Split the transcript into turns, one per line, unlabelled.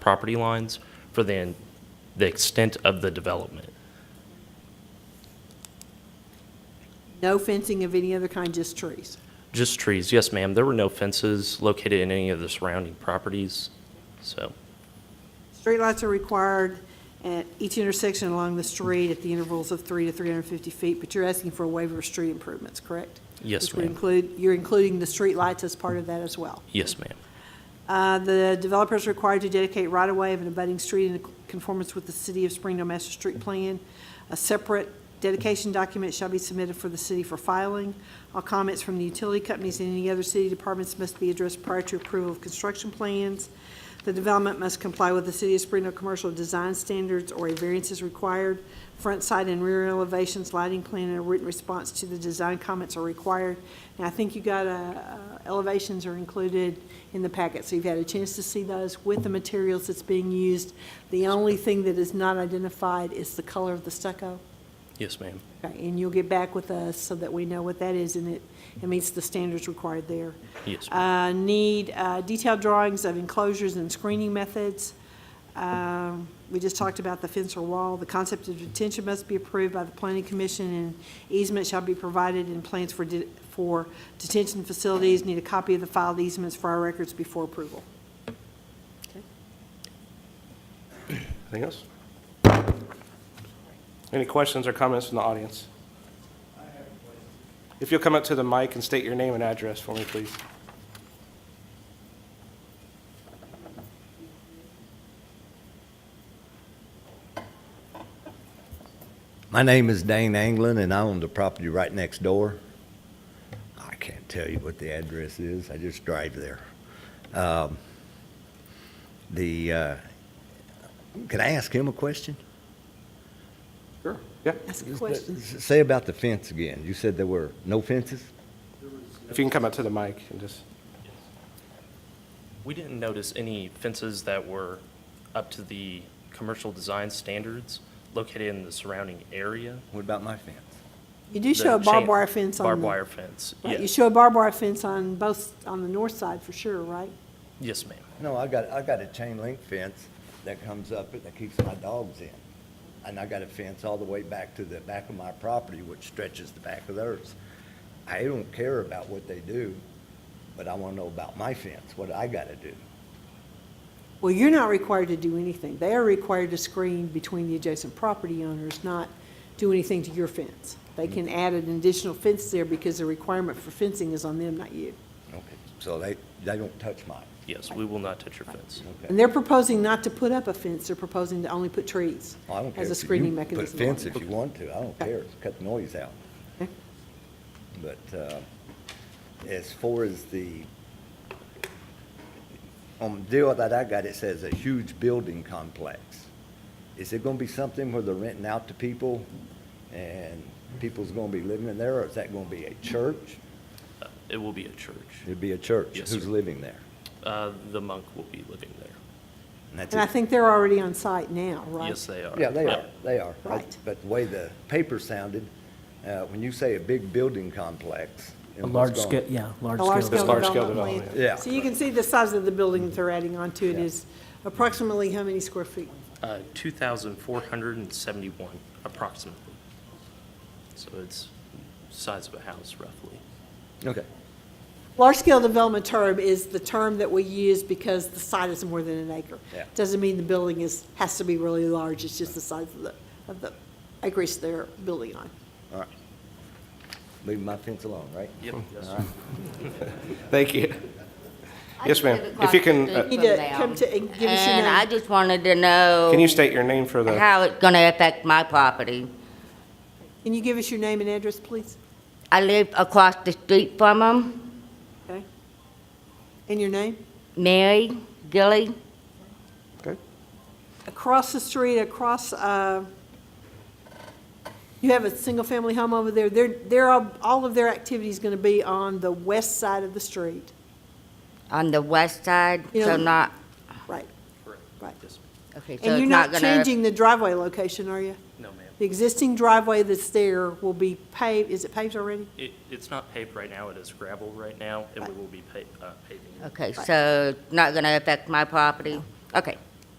property lines for the, the extent of the development.
No fencing of any other kind, just trees.
Just trees, yes, ma'am. There were no fences located in any of the surrounding properties, so,
Streetlights are required at each intersection along the street at the intervals of three to 350 feet, but you're asking for a waiver of street improvements, correct?
Yes,
Which would
ma'am.
include, you're including the streetlights as part of that as well.
yes, ma'am.
Uh, The developer is required to dedicate right-of-way of an abutting street in conformance with the City of Springdale Master Street Plan. A separate dedication document shall be submitted for the city for filing. All comments from the utility companies and any other city departments must be addressed prior to approval of construction plans. The development must comply with the City of Springdale Commercial Design Standards or a variance is required. Front side and rear elevations, lighting plan, and a written response to the design comments are required. And I think you got, uh, uh, elevations are included in the packet, so you've had a chance to see those with the materials that's being used. The only thing that is not identified is the color of the stucco.
Yes, ma'am.
Okay, And you'll get back with us so that we know what that is, and it, it meets the standards required there.
Yes, ma'am.
Uh, Need uh, detailed drawings of enclosures and screening methods. Um, We just talked about the fence or wall. The concept of detention must be approved by the planning commission, and easement shall be provided in plans for, de- for detention facilities. Need a copy of the filed easements for our records before approval.
Anything else? Any questions or comments from the audience? If you'll come up to the mic and state your name and address for me, please.
My name is Dane Anglin, and I own the property right next door. I can't tell you what the address is. I just drive there. Um, The, uh, can I ask him a question?
Sure. Yeah,
Ask a question.
Say about the fence again. You said there were no fences?
if you can come up to the mic and just,
We didn't notice any fences that were up to the commercial design standards located in the surrounding area.
What about my fence?
You do show a
The
barbed
chain-
wire fence on the.
Barbed wire fence,
Right, You
yes.
show a barbed wire fence on both, on the north side for sure, right?
Yes, ma'am.
No, I got, I got a chain link fence that comes up, that keeps my dogs in. And I got a fence all the way back to the back of my property, which stretches the back of theirs. I don't care about what they do, but I wanna know about my fence, what I gotta do.
Well, you're not required to do anything. They are required to screen between the adjacent property owners, not do anything to your fence. They can
Mm-hmm.
add an additional fence there because the requirement for fencing is on them, not you.
Okay. So they, they don't touch mine.
Yes, we will not touch your fence.
And they're proposing not to put up a fence, they're proposing to only put trees
I don't care.
as a
if you
screening mechanism.
Put a fence
along
if you want to, I don't
Okay.
care, cut the noise out.
Okay.
But uh, as far as the, on the deal that I got, it says a huge building complex. Is it gonna be something where they're renting out to people and people's gonna be living in there, or is that gonna be a church?
Uh, It will be a church.
It'd be a church.
Yes,
Who's
sir.
living there?
Uh, The monk will be living there.
And that's
And I
it.
think they're already on site now, right?
Yes, they are.
Yeah, they
Yep.
are, they are. But-
Right.
But the way the paper sounded, uh, when you say a big building complex. and
A
what's
large
going-
scale, yeah,
A
large scale.
large-scale
large scale
development.
development,
plan.
yeah.
So you can see the size of the building that they're adding on to it
Yeah.
is approximately how many square feet?
Uh, 2,471 approximately. So it's size of a house roughly.
Okay.
Large-scale development term is the term that we use because the site is more than an acre.
Yeah.
Doesn't mean the building is, has to be really large, it's just the size of the, of the acreage they're building on.
All right. Leave my fence alone, right?
Yep. yes,
All right.
thank you.
I
Yes,
just
ma'am.
did a
If you can,
question
uh,
You need to
from them.
come to and give us your
And I
name.
just wanted to know.
Can you state your name for the,
How it's gonna affect my property.
Can you give us your name and address, please?
I live across the street from them,
Okay? And your name?
Mary Gilly,
okay?
Across the street, across, uh, you have a single-family home over there. They're, they're, all all of their activity is going to be on the west side of the street.
on the west side,
Yeah.
so not,
Right,
Correct.
right.
Yes.
okay, Uh-huh. so
And
it's
you're
not
not
gonna.
changing the driveway location, are you?
No, ma'am.
The existing driveway that's there will be paved, is it paved already?
It, it's not paved right now, it is gravel right now, and we will be pa- uh, paving. it.
Okay, so it's not gonna affect my property? Okay,